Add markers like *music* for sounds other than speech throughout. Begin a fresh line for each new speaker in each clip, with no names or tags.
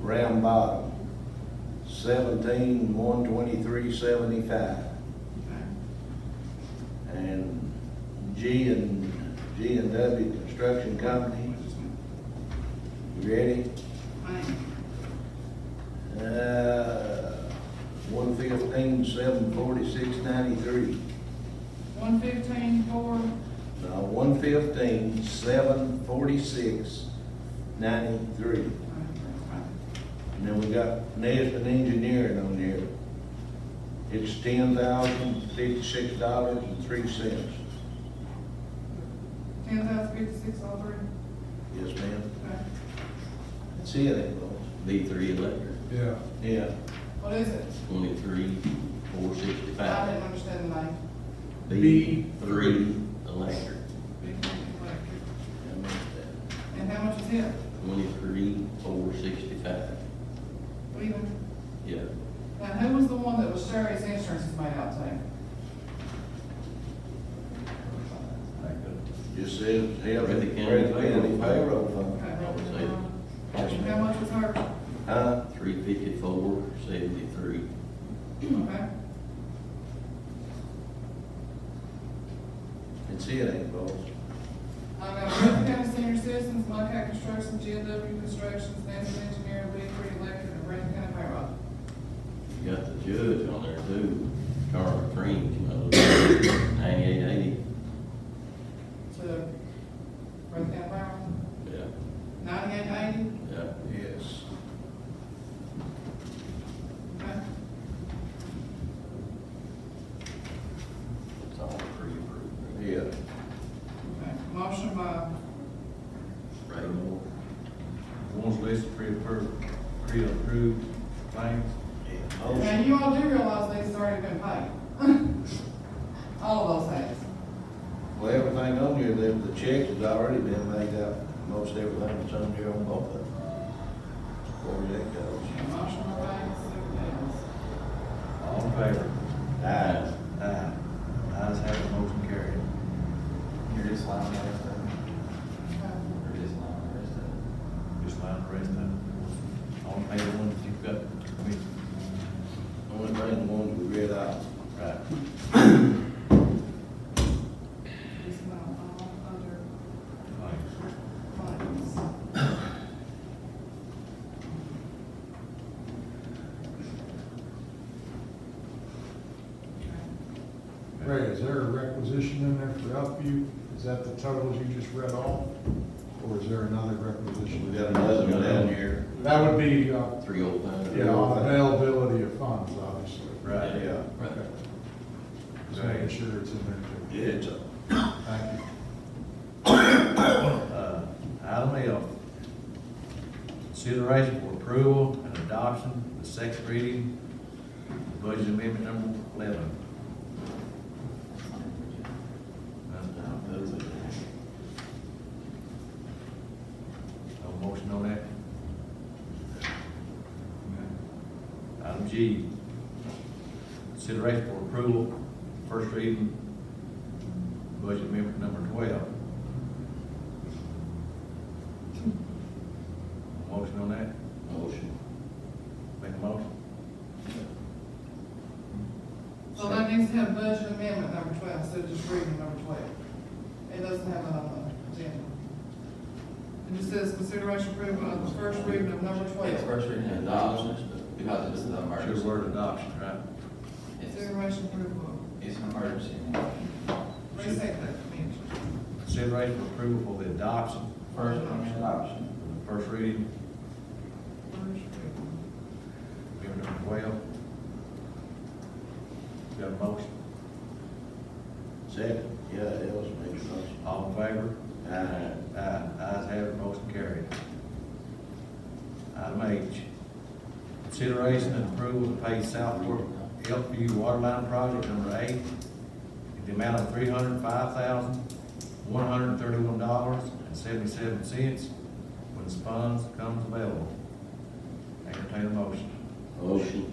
round bottom, seventeen, one twenty-three, seventy-five. And G and, G and W Construction Company, you ready? Uh, one fifteen, seven forty-six, ninety-three.
One fifteen, four,
Now, one fifteen, seven forty-six, ninety-three. And then we got Nesbit Engineering on here. It's ten thousand fifty-six dollars and three cents.
ten thousand fifty-six oh three.
Yes, ma'am.
Okay.
That's it, ain't it?
B three electric,
Yeah,
Yeah.
What is it?
twenty-three, four
I
sixty-five.
didn't understand the name.
B three electric,
Big thing, like,
I missed that.
And how much is it?
twenty-three, four sixty-five.
Even.
Yeah,
Now, who was the one that was Sherry's insurance is made out to?
Just says, hell,
Breathitt
Breathitt
County
County
Payroll
payroll fund.
Okay.
I would say that.
And how much was her?
Huh?
three fifty-four, seventy-three.
Okay.
That's it, ain't it, boss?
I got Russell County Senior Citizens, Lockhart Construction, GW Construction, Stanford Engineering, Bigford Electric, and Brandon County Payroll.
You got the judge on there too, Carl Cream, you know, ninety-eight eighty.
To Brandon County Payroll,
Yeah,
ninety-eight eighty,
yeah.
Yes.
okay?
It's all pre-approved.
Yeah.
Okay. Motion by
Ray Moore.
One's listed pre-approved, pre-approved claims.
Yeah.
Now, you all do realize these already been paid. *laughs* All of those things.
Well, everything on here, the, the check has already been made out, most everything that's on here on both of them. Where that goes.
Okay, Motion by Banks, second
All in favor?
Aye.
Aye. Ayes have it, motion carried. You're just lying there, sir.
by Ellis. Okay.
You're just lying there, sir. Just lying the rest of it. All in favor, ones you've got, we,
Only thing, the ones we read out.
right.
Is now all under
Claims.
funds.
Ray, is there a requisition in there for Upview? Is that the totals you just read off? Or is there another requisition?
We got another one down here.
That would be, uh,
Three oh five.
yeah, on availability of funds, obviously.
Right,
Yeah.
Okay. Just making sure it's in there
Yeah, it's a-
too. Thank you.
Uh, Item L, consideration for approval and adoption, the second reading, budget amendment number eleven. No motion on that? Item G, consideration for approval, first reading, budget amendment number twelve. Motion on that?
Motion.
Make a motion?
So that needs to have budget amendment number twelve, instead of just reading number twelve. It doesn't have that on the agenda. It just says consideration approval of the first reading of number
It's
twelve.
first reading and adoption, because it's an
Should have
emergency.
worded adoption, right?
It's-
Consideration approval,
It's an emergency.
restate that, I mean,
Consideration for approval for the adoption,
First reading and adoption.
the first reading,
first reading.
amendment number twelve. Got a motion,
Second, yeah, that was my motion.
all in favor?
Aye.
Aye, ayes Uh, have it, motion carried. Item H, consideration and approval to pay Southport Elkview Waterline Project Number Eight in the amount of three hundred five thousand, one hundred thirty-one dollars and seventy-seven cents when the funds comes available. Entertain a motion.
Motion.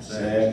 Second.